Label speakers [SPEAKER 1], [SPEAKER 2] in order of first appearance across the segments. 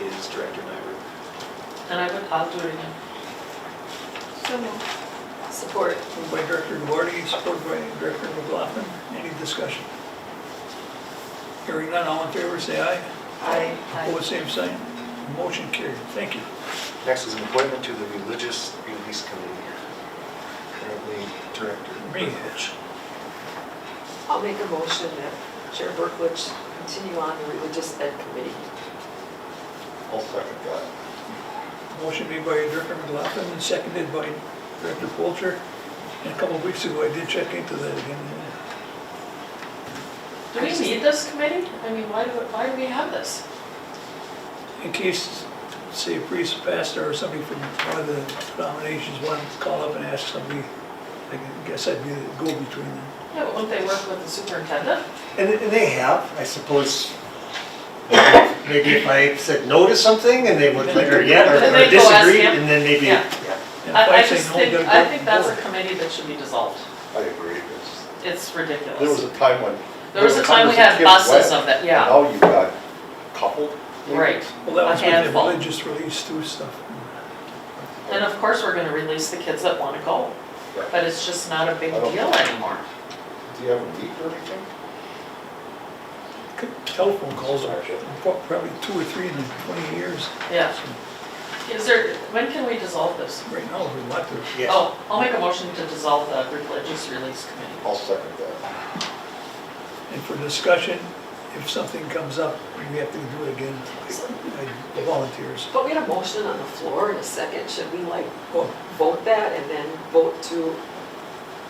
[SPEAKER 1] is Director Nyberg.
[SPEAKER 2] And I would, I'll do it again.
[SPEAKER 3] So
[SPEAKER 2] Support.
[SPEAKER 4] Moved by Director Duarte, supported by Director McLaughlin. Any discussion? Hearing none, all in favor, say aye.
[SPEAKER 2] Aye.
[SPEAKER 4] Opposed, same sign. Motion carried. Thank you.
[SPEAKER 1] Next is an appointment to the Religious Release Committee. Currently Director
[SPEAKER 4] Me.
[SPEAKER 1] Berkovich.
[SPEAKER 5] I'll make a motion that Chair Berklich continue on the Religious Ed Committee.
[SPEAKER 1] I'll second that.
[SPEAKER 4] Motion made by Director McLaughlin and seconded by Director Polter. And a couple of weeks ago, I did check into that again.
[SPEAKER 2] Do we need this committee? I mean, why do, why do we have this?
[SPEAKER 4] In case, say, a priest, pastor, or somebody from one of the denominations wanted to call up and ask somebody, I guess I'd be the go-between then.
[SPEAKER 2] Yeah, but won't they work with the superintendent?
[SPEAKER 6] And and they have, I suppose, maybe if I said no to something and they would later, yeah, or
[SPEAKER 2] Then they'd
[SPEAKER 6] or
[SPEAKER 2] go ask
[SPEAKER 6] disagreed,
[SPEAKER 2] him.
[SPEAKER 6] and then maybe,
[SPEAKER 2] Yeah.
[SPEAKER 6] yeah.
[SPEAKER 4] And if
[SPEAKER 2] I, I
[SPEAKER 4] say
[SPEAKER 2] just
[SPEAKER 4] no,
[SPEAKER 2] think,
[SPEAKER 4] gotta go
[SPEAKER 2] I think that's a
[SPEAKER 4] forward.
[SPEAKER 2] committee that should be dissolved.
[SPEAKER 7] I agree, because
[SPEAKER 2] It's
[SPEAKER 7] there was
[SPEAKER 2] ridiculous.
[SPEAKER 7] a time when.
[SPEAKER 2] There was a time we had buses of that, yeah,
[SPEAKER 7] Now you got coupled.
[SPEAKER 2] right.
[SPEAKER 4] Well, that
[SPEAKER 2] A
[SPEAKER 4] was with the
[SPEAKER 2] handful.
[SPEAKER 4] religious release too stuff.
[SPEAKER 2] And of course, we're gonna release the kids that wanna go, but it's just not a big
[SPEAKER 7] I don't-
[SPEAKER 2] deal anymore.
[SPEAKER 7] Do you have a week or anything?
[SPEAKER 4] Good Telephone calls are probably two or three in the twenty years.
[SPEAKER 2] Yeah. Is there, when can we dissolve this?
[SPEAKER 4] Right now, there's a lot of,
[SPEAKER 6] Yeah.
[SPEAKER 2] Oh, I'll make a motion to dissolve the religious release committee.
[SPEAKER 7] I'll second that.
[SPEAKER 4] and for discussion, if something comes up, we have to do it again. I- I- Volunteers.
[SPEAKER 5] But we had a motion on the floor in a second, should we like
[SPEAKER 4] Well,
[SPEAKER 5] vote that and then vote to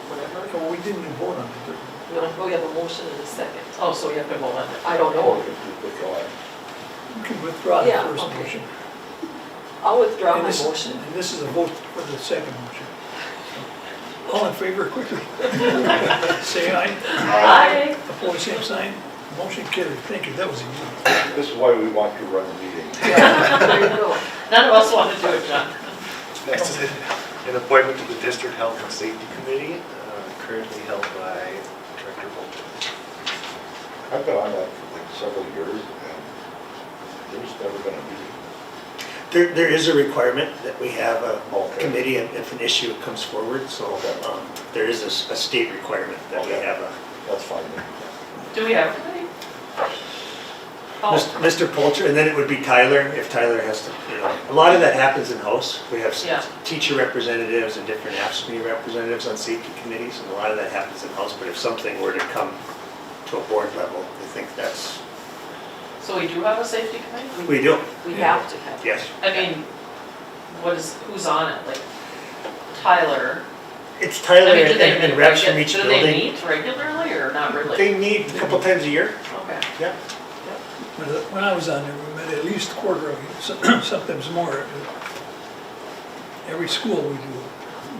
[SPEAKER 5] whatever?
[SPEAKER 4] no, we didn't vote on it.
[SPEAKER 5] No, we have a motion in a second.
[SPEAKER 2] Oh, so we have to vote on it.
[SPEAKER 5] I don't
[SPEAKER 7] Or
[SPEAKER 5] know.
[SPEAKER 7] if you could go ahead.
[SPEAKER 4] but You can withdraw the
[SPEAKER 5] Yeah,
[SPEAKER 4] first
[SPEAKER 5] okay.
[SPEAKER 4] motion.
[SPEAKER 5] I'll withdraw
[SPEAKER 4] And
[SPEAKER 5] my
[SPEAKER 4] this-
[SPEAKER 5] motion.
[SPEAKER 4] And this is a vote for the second motion. All in favor, quickly. Say aye.
[SPEAKER 2] Aye.
[SPEAKER 4] Opposed, same sign. Motion carried. Thank you. That was easy.
[SPEAKER 7] This is why we want to run the meeting.
[SPEAKER 5] Yeah, there you go.
[SPEAKER 2] None of us want to do it, John.
[SPEAKER 1] Next is an appointment to the District Health and Safety Committee, uh, currently held by Director Bolton.
[SPEAKER 7] I've been on that for like several years, and there's never been a meeting.
[SPEAKER 6] There, there is a requirement that we have a
[SPEAKER 7] Okay.
[SPEAKER 6] committee if if an issue comes forward, so um, there is a s- a state requirement that we
[SPEAKER 7] Okay.
[SPEAKER 6] have a.
[SPEAKER 7] That's fine. then.
[SPEAKER 2] Do we have a committee?
[SPEAKER 6] Mis-
[SPEAKER 2] Oh,
[SPEAKER 6] Mr. Polter, and then it would be Tyler, if Tyler has to, you know, a lot of that happens in-house. We have s-
[SPEAKER 2] Yeah.
[SPEAKER 6] teacher representatives and different ASME representatives on safety committees, and a lot of that happens in-house, but if something were to come to a board level, I think that's,
[SPEAKER 2] so we do have a safety committee?
[SPEAKER 6] we do,
[SPEAKER 5] We have to have.
[SPEAKER 6] yes.
[SPEAKER 2] I mean, what is, who's on it? Like Tyler?
[SPEAKER 6] It's
[SPEAKER 2] I
[SPEAKER 6] Tyler
[SPEAKER 2] mean, do
[SPEAKER 6] and
[SPEAKER 2] they
[SPEAKER 6] and
[SPEAKER 2] meet
[SPEAKER 6] reps from
[SPEAKER 2] regu-
[SPEAKER 6] each
[SPEAKER 2] Do they
[SPEAKER 6] building.
[SPEAKER 2] meet regularly or not really?
[SPEAKER 6] They meet a couple times a year,
[SPEAKER 2] Okay.
[SPEAKER 6] yeah.
[SPEAKER 4] When I- When I was on there, we met at least a quarter of you, some- sometimes more. Every school we do,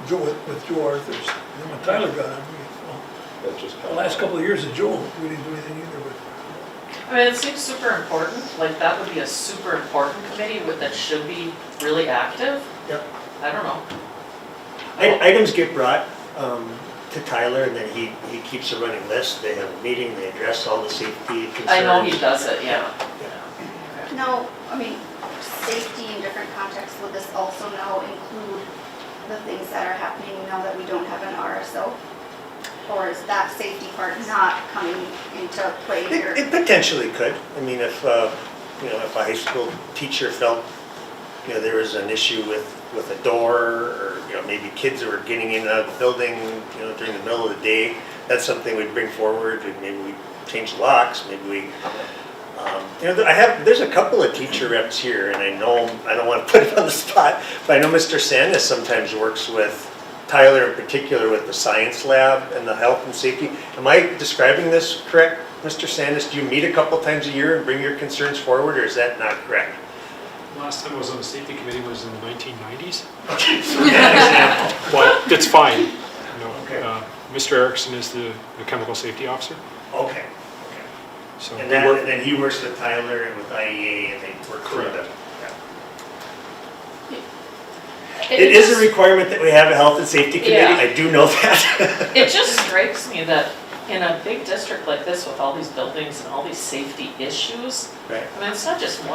[SPEAKER 4] Joe, with Joe Arthurs. And then when Tyler got on, we,
[SPEAKER 7] That's just.
[SPEAKER 4] well, the last couple of years of Joe, we didn't do anything either, but
[SPEAKER 2] I mean, it seems super important, like that would be a super important committee with- that should be really active.
[SPEAKER 6] Yep.
[SPEAKER 2] I don't know.
[SPEAKER 6] I- Items get brought um, to Tyler, and then he, he keeps a running list. They have a meeting, they address all the safety concerns.
[SPEAKER 2] I know he does it, yeah.
[SPEAKER 8] No, I mean, safety in different contexts, will this also now include the things that are happening now that we don't have an RSO? Or is that safety part not coming into play here?
[SPEAKER 6] It it potentially could. I mean, if, uh, you know, if a high school teacher felt, you know, there was an issue with, with a door, or, you know, maybe kids that were getting in and out of the building, you know, during the middle of the day, that's something we'd bring forward, and maybe we change locks, maybe we, um, you know, I have, there's a couple of teacher reps here, and I know, I don't want to put it on the spot, but I know Mr. Sandus sometimes works with Tyler in particular with the science lab and the health and safety. Am I describing this correct, Mr. Sandus? Do you meet a couple times a year and bring your concerns forward, or is that not correct?
[SPEAKER 9] Last time I was on the safety committee was in the 1990s.
[SPEAKER 6] Example.
[SPEAKER 9] Well, that's fine. You know,
[SPEAKER 6] Okay.
[SPEAKER 9] uh, Mr. Erickson is the the chemical safety officer,
[SPEAKER 6] Okay, okay.
[SPEAKER 9] so we
[SPEAKER 6] And then, and
[SPEAKER 9] work,
[SPEAKER 6] then he works with Tyler and with IEA, and they work through
[SPEAKER 9] Correct.
[SPEAKER 6] them. It is a requirement that we have a health and safety committee,
[SPEAKER 2] Yeah.
[SPEAKER 6] I do know that.
[SPEAKER 2] It just strikes me that in a big district like this with all these buildings and all these safety issues,
[SPEAKER 6] Right.
[SPEAKER 2] I mean, it's not just one.